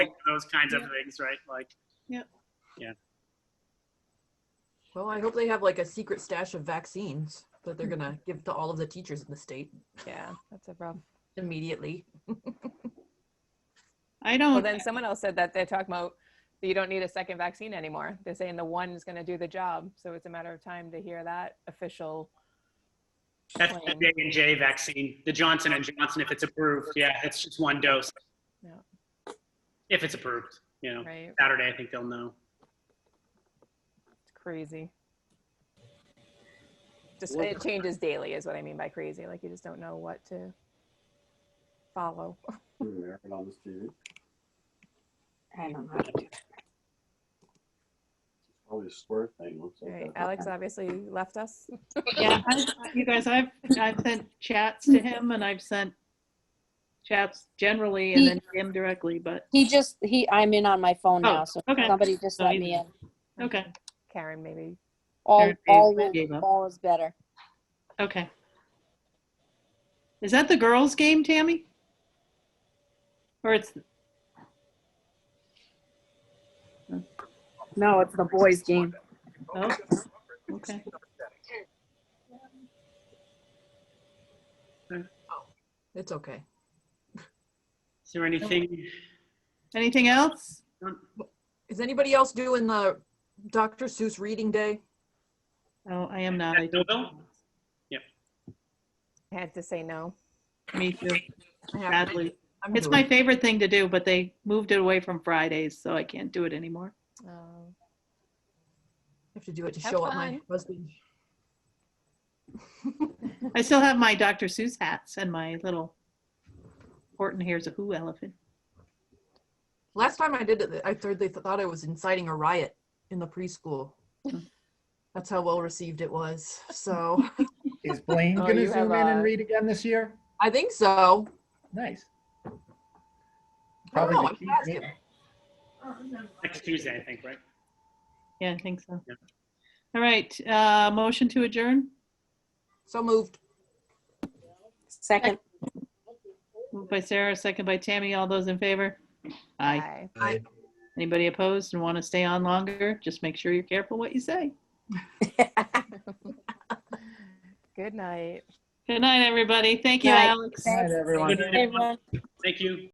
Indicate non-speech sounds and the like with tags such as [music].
those kinds of Yeah. things, right? Like, Well, I hope they have like a secret stash of vaccines that they're gonna give to all of the teachers in the state Yeah, that's a problem. immediately. I Oh, Well, don't, uh, then someone else said that they're talking about that you don't need a second vaccine anymore. They're saying the one is going to do the job. So it's a matter of time to hear that official. that's the Plan. J and J vaccine, the Johnson and Johnson, if it's approved. Yeah, it's just one dose. Yeah. If it's approved, you know, Right? Saturday, I think they'll know. It's crazy. Just it changes daily, is what I mean by crazy. Like you just don't know what to follow. Doing there and on this TV. I don't know how to do that. All these square thing looks like. [laughs] Right? that. Alex obviously left us. yeah, I- you guys, I've, I've sent chats to him and I've sent chats generally and then to him directly, but, He just, he, I'm in on my phone Oh, now, so okay. somebody just So let you- me in. okay, Karen, maybe. All, There it all, is. Gave up. all is better. okay. Is that the girls' game, Tammy? Or it's, No, it's the boys' game. oh, okay. It's okay. Is there anything? Anything else? Is anybody else doing the Dr. Seuss reading day? Oh, I am not. I No, Bill? I had to say no. Me too, I have- sadly. I'm It's doing my favorite thing to do, but they moved it away from Fridays, so I can't do it anymore. Um, I have to do it to Have show up my fun. husband. I still have my Dr. Seuss hats and my little Horton Hears a Who elephant. Last time I did it, I thought they thought I was inciting a riot in the preschool. That's how well received it was. [laughs] So Is Blaine Oh, going to you have zoom in a- and read again this year? I think so. Nice. I don't Probably know, the I'm key. asking. Next Tuesday, I think, right? Yeah, I think so. Yeah. All right, uh, motion to adjourn. So moved. [laughs] Second. Moved by Sarah, second by Tammy. All those in favor? Aye. bye. I- Anybody opposed and want to stay on longer? Just make sure you're careful what you say. Good night. Good night, everybody. Thank you, Night. Alex. Good night, everyone. Thank you.